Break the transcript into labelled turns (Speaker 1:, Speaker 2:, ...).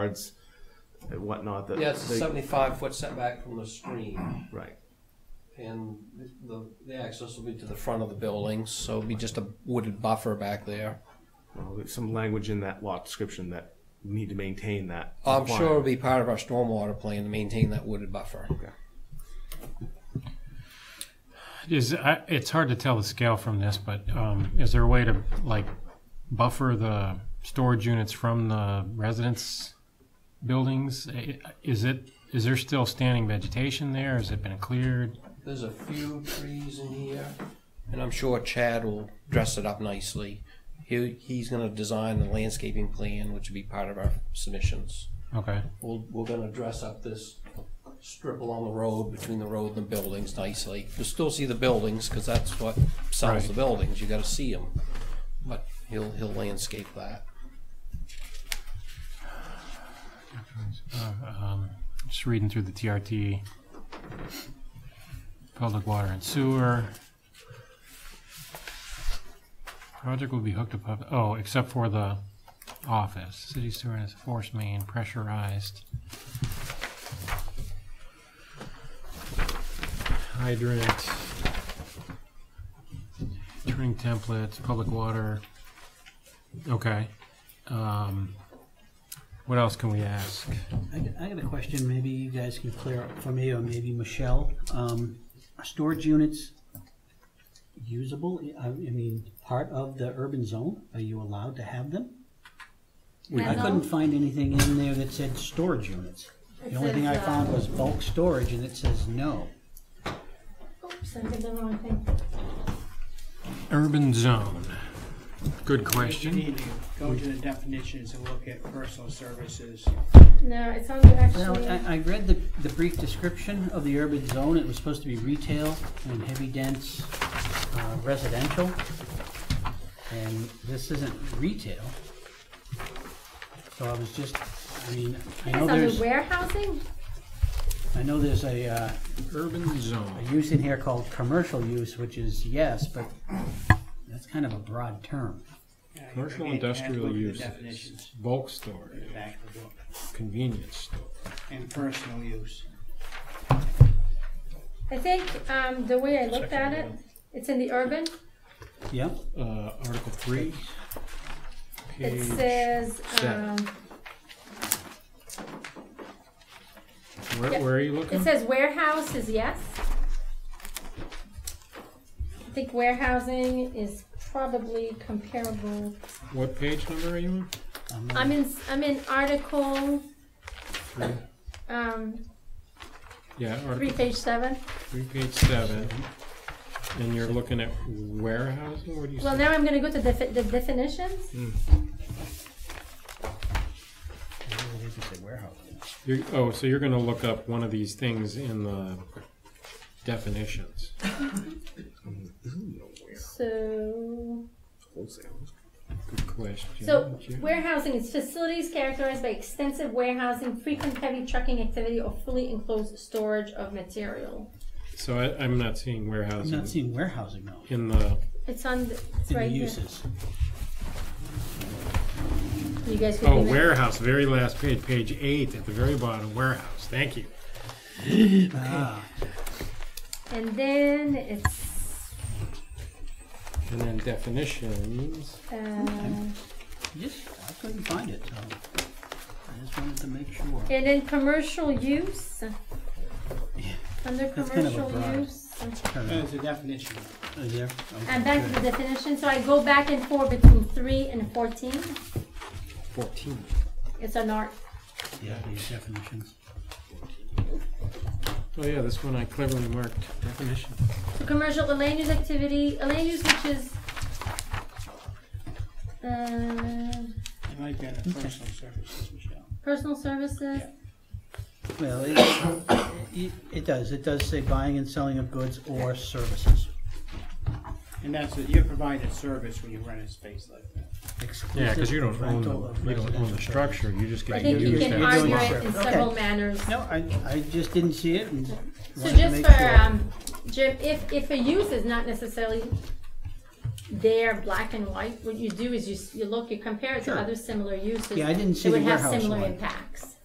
Speaker 1: yards and whatnot. That
Speaker 2: Yeah, it's a
Speaker 1: they-
Speaker 2: seventy-five foot setback from the stream,
Speaker 1: Right.
Speaker 2: and the, the access will be to the front of the building, so it'll be just a wooded buffer back there.
Speaker 1: Well, there's some language in that lot description that we need to maintain that.
Speaker 2: I'm sure it'll
Speaker 1: requirement.
Speaker 2: be part of our stormwater plan to maintain that wooded buffer.
Speaker 3: Is, I- it's hard to tell the scale from this, but um, is there a way to, like, buffer the storage units from the residence buildings? I- Is it, is there still standing vegetation there? Has it been cleared?
Speaker 2: There's a few trees in here, and I'm sure Chad will dress it up nicely. He, he's gonna design the landscaping plan, which will be part of our submissions.
Speaker 3: Okay,
Speaker 2: We'll, we're gonna dress up this strip along the road, between the road and the buildings nicely. You'll still see the buildings, because that's what sells the
Speaker 3: Right.
Speaker 2: buildings, you gotta see them. But he'll, he'll landscape that.
Speaker 3: just reading through the TRT. Public water and sewer. Project will be hooked up, oh, except for the office. City sewer is force main pressurized. Hydrant. Turning templates, public water. Okay. Um, What else can we ask?
Speaker 4: I got- I got a question, maybe you guys can clear up for me, or maybe Michelle. Um, Are storage units usable, I I mean, part of the urban zone? Are you allowed to have them? I couldn't find anything in there that said storage units. The only thing I
Speaker 5: uh,
Speaker 4: found was bulk storage, and it says no.
Speaker 6: Oops, I did the wrong thing.
Speaker 3: Urban zone. Good
Speaker 5: If you
Speaker 3: question.
Speaker 5: need to go to the definitions and look at personal services.
Speaker 6: No, it's on the
Speaker 4: Now,
Speaker 6: actually.
Speaker 4: I, I read the, the brief description of the urban zone, it was supposed to be retail and heavy dense uh, residential. And this isn't retail. So I was just, I mean, I know
Speaker 6: It's under
Speaker 4: there's,
Speaker 6: warehousing?
Speaker 4: I know there's a, uh,
Speaker 3: Urban
Speaker 4: a
Speaker 3: zone.
Speaker 4: use in here called commercial use, which is yes, but that's kind of a broad term.
Speaker 5: Yeah, you
Speaker 3: Commercial
Speaker 5: can- you can
Speaker 3: industrial
Speaker 5: look at the
Speaker 3: uses,
Speaker 5: Definitions
Speaker 3: bulk
Speaker 5: in
Speaker 3: storage,
Speaker 5: the back of the book,
Speaker 3: convenience store.
Speaker 5: and personal use.
Speaker 6: I think, um, the way I looked at it, it's in the urban.
Speaker 4: Yep,
Speaker 3: Uh, Article three.
Speaker 6: It
Speaker 3: Page,
Speaker 6: says, um,
Speaker 3: where, where are you
Speaker 6: it
Speaker 3: looking?
Speaker 6: says warehouse is yes. I think warehousing is probably comparable.
Speaker 3: What page number are you on?
Speaker 6: I'm in, I'm in article,
Speaker 3: Three.
Speaker 6: um,
Speaker 3: Yeah,
Speaker 6: three,
Speaker 3: Article
Speaker 6: page seven.
Speaker 3: three, page seven. And you're looking at warehousing, what do you
Speaker 6: Well,
Speaker 3: say?
Speaker 6: now I'm gonna go to the, fi- the
Speaker 4: Mm.
Speaker 6: definitions.
Speaker 4: it is a warehouse.
Speaker 3: You're, oh, so you're gonna look up one of these things in the definitions.
Speaker 6: So,
Speaker 1: Wholesale.
Speaker 3: Good question.
Speaker 6: So
Speaker 3: Yeah.
Speaker 6: warehousing is facilities characterized by extensive warehousing, frequent heavy trucking activity, or fully enclosed storage of material.
Speaker 3: So I, I'm not seeing
Speaker 4: I'm not
Speaker 3: warehousing
Speaker 4: seeing warehousing though,
Speaker 3: in the,
Speaker 6: It's on, the- it's
Speaker 4: in the
Speaker 6: right here.
Speaker 4: uses.
Speaker 6: You guys could.
Speaker 3: oh,
Speaker 6: do that.
Speaker 3: warehouse, very last page, page eight at the very bottom, warehouse, thank you.
Speaker 4: Ah,
Speaker 6: And then it's,
Speaker 3: And then definitions,
Speaker 6: uh,
Speaker 4: Yes, I couldn't find it, so I just wanted to make sure.
Speaker 6: and then commercial use. Under
Speaker 4: That's kind of a
Speaker 6: commercial
Speaker 4: broad-
Speaker 6: use.
Speaker 5: As a definition.
Speaker 4: Is there?
Speaker 6: And back to the definition, so I go back and forth between three and fourteen.
Speaker 3: fourteen.
Speaker 6: It's an art.
Speaker 4: Yeah, these definitions.
Speaker 3: Oh yeah, this one I cleverly marked, definition.
Speaker 6: So commercial, a land use activity, a land use which is, uh,
Speaker 5: I like that, uh, personal services, Michelle.
Speaker 6: Personal services?
Speaker 4: Well, it, it, it does, it does say buying and selling of goods or services.
Speaker 5: And that's, it, you're providing a service when you rent a space like that.
Speaker 3: Yeah, because you don't
Speaker 4: exclusive
Speaker 3: own,
Speaker 4: rental of
Speaker 3: the- you don't own
Speaker 4: residential
Speaker 3: the structure, you just
Speaker 6: I
Speaker 3: get to
Speaker 6: think you
Speaker 3: use
Speaker 6: can
Speaker 4: you're
Speaker 3: that.
Speaker 6: argue
Speaker 4: doing
Speaker 6: it
Speaker 3: spot.
Speaker 4: research.
Speaker 6: in
Speaker 4: Okay.
Speaker 6: several manners.
Speaker 4: No, I, I just didn't see it and wanted
Speaker 6: So
Speaker 4: to
Speaker 6: just
Speaker 4: make
Speaker 6: for,
Speaker 4: sure.
Speaker 6: um, Jim, if, if a use is not necessarily there black and white. What you do is you, s- you look, you compare it
Speaker 4: Sure.
Speaker 6: to other similar uses.
Speaker 4: Yeah, I didn't see
Speaker 6: that
Speaker 4: the
Speaker 6: would have
Speaker 4: warehouse
Speaker 6: similar
Speaker 4: one.
Speaker 6: impacts.